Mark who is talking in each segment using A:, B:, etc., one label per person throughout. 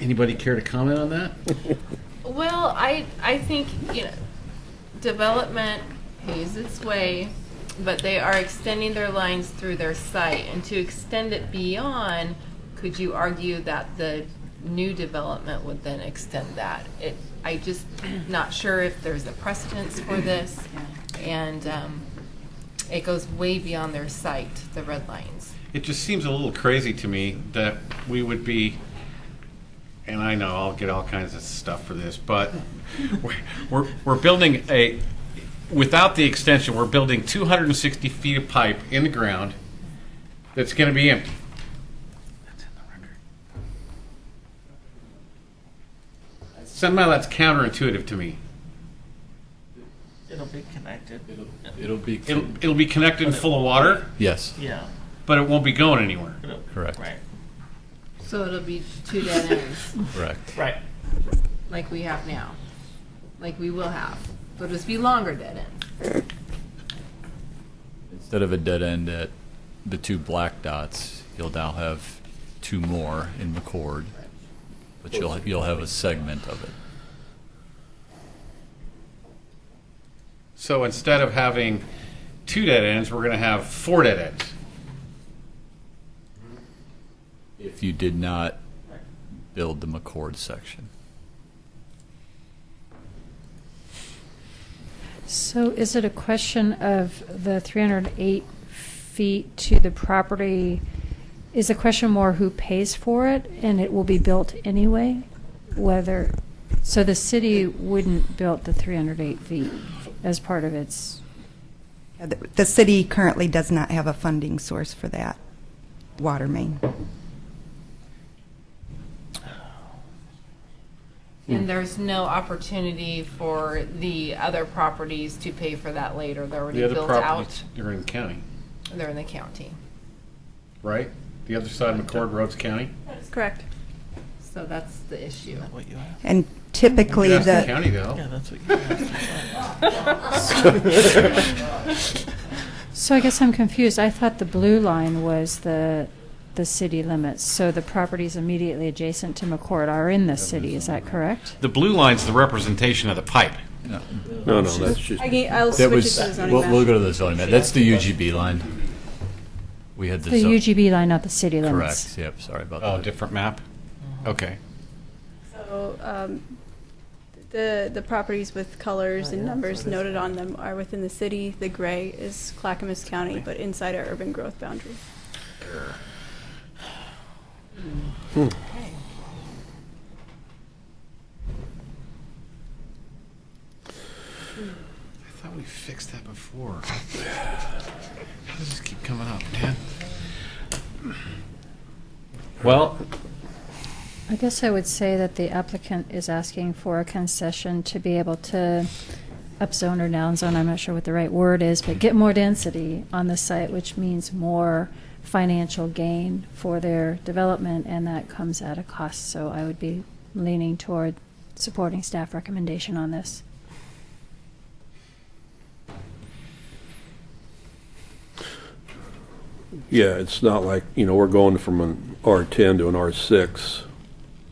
A: Anybody care to comment on that?
B: Well, I, I think, you know, development pays its way, but they are extending their lines through their site. And to extend it beyond, could you argue that the new development would then extend that? It, I just not sure if there's a precedence for this. And, um, it goes way beyond their site, the red lines.
C: It just seems a little crazy to me that we would be, and I know I'll get all kinds of stuff for this, but we're, we're, we're building a, without the extension, we're building 260 feet of pipe in the ground that's going to be empty. Somehow that's counterintuitive to me.
D: It'll be connected.
E: It'll be.
C: It'll, it'll be connected and full of water,
E: Yes,
D: Yeah.
C: but it won't be going anywhere.
D: it'll-
E: Correct.
D: Right.
B: So it'll be two dead ends.
E: correct.
D: Right.
B: like we have now, like we will have. It'll just be longer dead ends.
E: Instead of a dead end at the two black dots, you'll now have two more in McCord, but you'll, you'll have a segment of it.
C: So instead of having two dead ends, we're going to have four dead ends.
E: If you did not build the McCord section.
F: So is it a question of the 308 feet to the property? Is the question more who pays for it and it will be built anyway? Whether, so the city wouldn't build the 308 feet as part of its,
G: The the city currently does not have a funding source for that water main.
B: And there's no opportunity for the other properties to pay for that later. They're already
C: The other
B: built out.
C: properties are in county,
B: They're in the county.
C: right? The other side of McCord Road's county?
H: Correct.
B: So that's the issue.
D: What you have.
G: And typically,
C: That's the
G: the,
C: county though.
D: Yeah, that's what you have.
F: so I guess I'm confused. I thought the blue line was the, the city limits. So the properties immediately adjacent to McCord are in the city, is that correct?
C: The blue line's the representation of the pipe.
I: No, no, that's just,
H: I can, I'll
E: That
H: switch it
E: was,
H: to the zoning
E: we'll,
H: map.
E: we'll go to the zoning map. That's the UGB line. We had the.
F: The
E: zone-
F: UGB line, not the city limits.
E: Correct, yep, sorry about
C: Oh,
E: that.
C: different map? Okay.
H: So, um, the, the properties with colors and numbers noted on them are within the city. The gray is Clackamas County, but inside our urban growth boundary.
C: I thought we fixed that before. How does this keep coming up, man?
E: Well,
F: I guess I would say that the applicant is asking for a concession to be able to upzone or downzone, I'm not sure what the right word is, but get more density on the site, which means more financial gain for their development, and that comes at a cost. So I would be leaning toward supporting staff recommendation on this.
I: yeah, it's not like, you know, we're going from an R10 to an R6.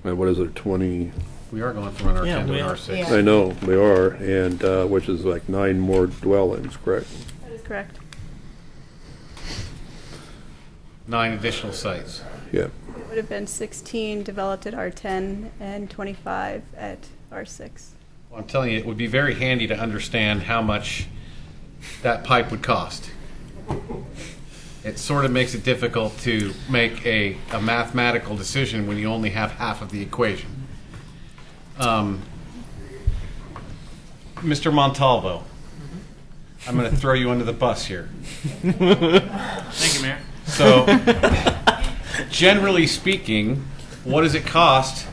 I: Uh, What is it, 20?
C: We are going from an
D: Yeah,
C: R10 to
D: we
C: an
D: are.
C: R6.
B: Yeah.
I: I know, we are, and, uh, which is like nine more dwellings, correct?
H: That is correct.
C: Nine additional sites.
I: Yeah.
H: It would have been 16 developed at R10 and 25 at R6.
C: Well, I'm telling you, it would be very handy to understand how much that pipe would cost. It sort of makes it difficult to make a, a mathematical decision when you only have half of the equation. Um, Mr. Montalvo, I'm going to throw you under the bus here.
D: Thank you, Mayor.
C: So, generally speaking, what does it cost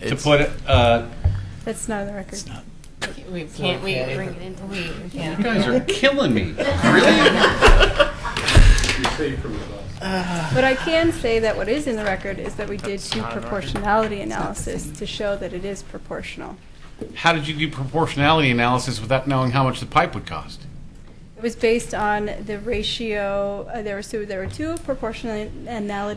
C: to
E: It's-
C: put uh,
H: That's not on the record.
B: We can't, we, we, we
C: You
B: can't.
C: guys are killing me.
H: But I can say that what is in the record is that we did do proportionality analysis to show that it is proportional.
C: How did you do proportionality analysis without knowing how much the pipe would cost?
H: It was based on the ratio, uh, there were, so there were two proportionality